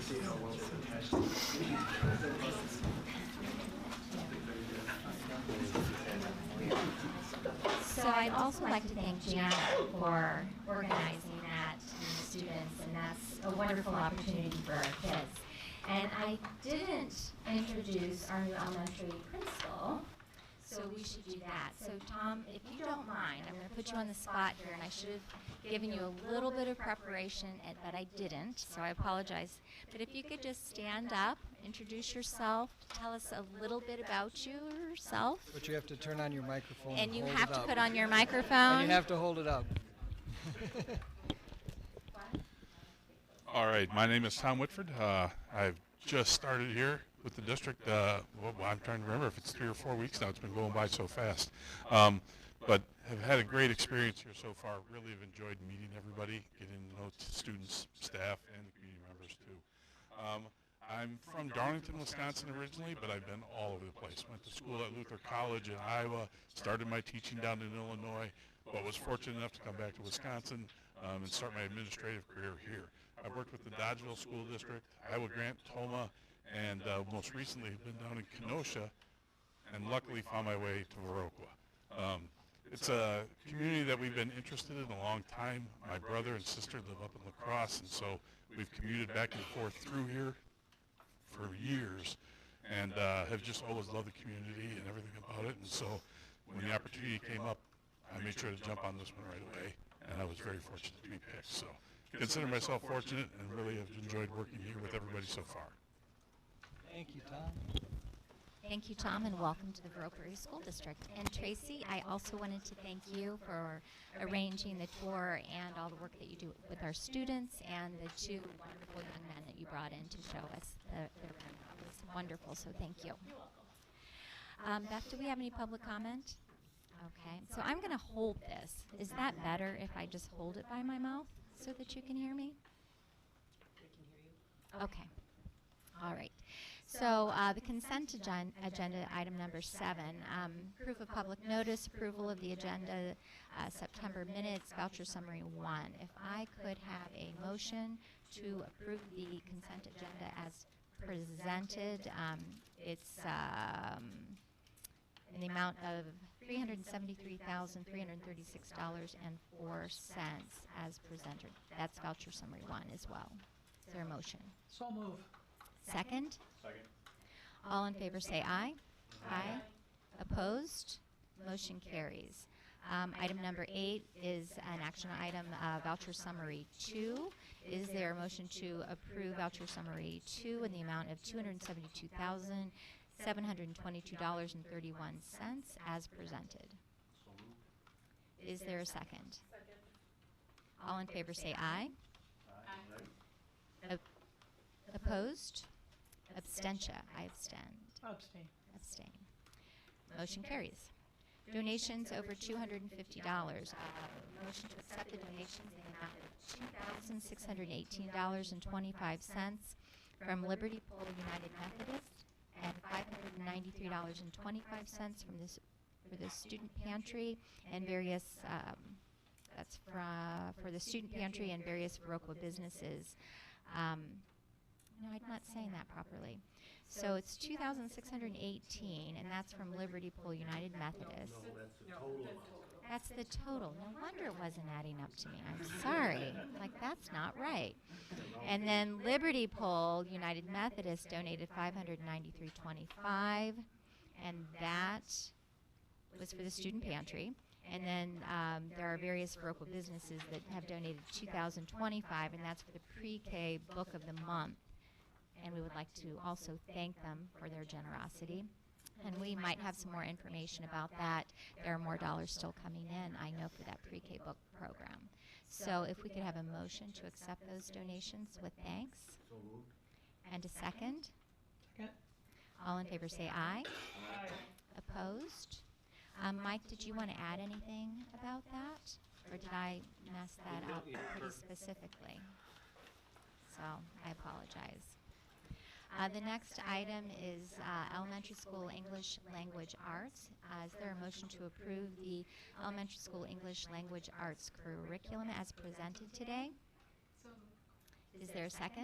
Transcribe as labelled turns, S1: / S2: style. S1: see how one's attached to the.
S2: So I'd also like to thank Janet for organizing that to the students, and that's a wonderful opportunity for our kids. And I didn't introduce our new elementary principal, so we should do that. So Tom, if you don't mind, I'm going to put you on the spot here, and I should have given you a little bit of preparation, and- but I didn't, so I apologize. But if you could just stand up, introduce yourself, tell us a little bit about yourself.
S3: But you have to turn on your microphone.
S2: And you
S3: hold
S2: have
S3: it
S2: to
S3: up.
S2: put on your microphone.
S3: And you have to hold it up.
S4: All right, my name is Tom Whitford. Uh, I've just started here with the district. Uh, well, well, I'm trying to remember if it's three or four weeks now. It's been going by so fast. Um, but have had a great experience here so far. Really have enjoyed meeting everybody, getting to know students, staff, and the community members too. Um, I'm from Darlington, Wisconsin originally, but I've been all over the place. Went to school at Luther College in Iowa, started my teaching down in Illinois, but was fortunate enough to come back to Wisconsin um, and start my administrative career here. I've worked with the Dodgeville School District, Iowa Grant, Toma, and uh, most recently have been down in Kenosha and luckily found my way to Viroqua. Um, it's a community that we've been interested in a long time. My brother and sister live up in La Crosse, and so we've commuted back and forth through here for years and uh, have just always loved the community and everything about it. And so when the opportunity came up, I made sure to jump on this one right away, and I was very fortunate to be picked. So consider myself fortunate and really have enjoyed working here with everybody so far.
S3: Thank you, Tom.
S2: Thank you, Tom, and welcome to the Borough Prairie School District. And Tracy, I also wanted to thank you for arranging the tour and all the work that you do with our students and the two wonderful young men that you brought in to show us the, their room. It was wonderful, so thank you. Um, Beth, do we have any public comment? Okay, so I'm going to hold this. Is that better if I just hold it by my mouth so that you can hear me? Okay. All right. So uh, the consent agen- agenda, item number seven, um, proof of public notice, approval of the agenda, uh, September minutes, voucher summary one. If I could have a motion to approve the consent agenda as presented, um, it's um, in the amount of $373,336.04 as presented. That's voucher summary one as well. Is there a motion?
S3: So move.
S2: Second? All in favor say aye. Aye. Opposed? Motion carries. Um, Item number eight is an action item, uh, voucher summary two. Is there a motion to approve voucher summary two in the amount of $272,722.31 as presented? Is there a second? All in favor say aye. Aye. Opposed? Abstention. I abstend.
S5: Abstain.
S2: Abstain. Motion carries. Donations over two hundred and fifty dollars. Uh, Motion to accept the donations in the amount of two thousand six hundred and eighteen dollars and twenty-five cents from Liberty Pole United Methodist and five hundred and ninety-three dollars and twenty-five cents from this, for the student pantry and various, um, that's fra, for the student pantry and various Viroqua businesses. Um, no, I'm not saying that properly. So it's two thousand six hundred and eighteen, and that's from Liberty Pool United Methodist.
S1: That's the total amount.
S2: That's the total. No wonder it wasn't adding up to me. I'm sorry. Like, that's not right. And then Liberty Pole United Methodist donated five hundred ninety-three twenty-five, and that was for the student pantry. And then um, there are various local businesses that have donated two thousand twenty-five, and that's for the pre-K book of the month. And we would like to also thank them for their generosity. And we might have some more information about that. There are more dollars still coming in, I know, for that pre-K book program. So if we could have a motion to accept those donations with thanks. And a second.
S5: Second.
S2: All in favor say aye. Opposed? Um, Mike, did you want to add anything about that? Or did I mess that up pretty specifically? So I apologize. Uh, the next item is uh, elementary school English language arts. Uh, is there a motion to approve the elementary school English language arts curriculum as presented today? Is there a second?